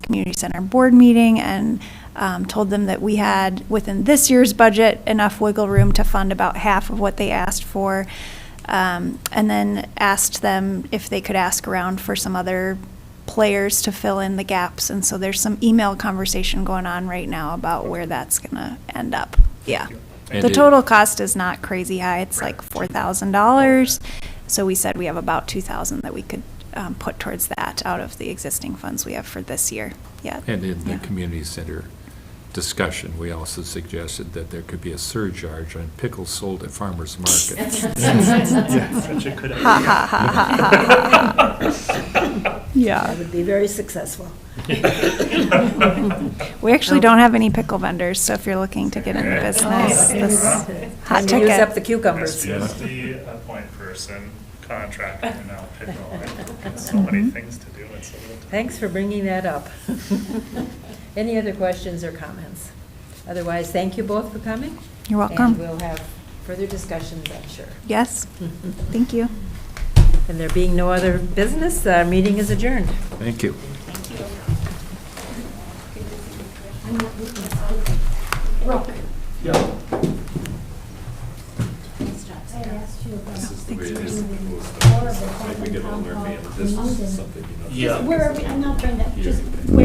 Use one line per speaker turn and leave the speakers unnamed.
community center board meeting and um, told them that we had, within this year's budget, enough wiggle room to fund about half of what they asked for. Um, And then asked them if they could ask around for some other players to fill in the gaps. And so there's some email conversation going on right now about where that's gonna end up. Yeah.
And
The
it-
total cost is not crazy high. It's like four thousand dollars. So we said we have about two thousand that we could um, put towards that out of the existing funds we have for this year. Yeah.
And in the
Yeah.
community center discussion, we also suggested that there could be a surcharge on pickles sold at farmers markets.
Such a good
Ha ha ha ha ha. ha.
That
Yeah.
would be very successful.
We actually don't have any pickle vendors, so if you're looking to get in the business, this hot
Time to Use up the
ticket.
cucumbers.
As as the uh, point person, contractor, and now pickle, I've got so many things to do and so little time.
Thanks for bringing that up. Any other questions or comments? Otherwise, thank you both for coming.
You're welcome.
And we'll have further discussions, I'm sure.
Yes. Thank you.
And there being no other business, our meeting is adjourned.
Thank you.
Just wherever, and not Brenda, just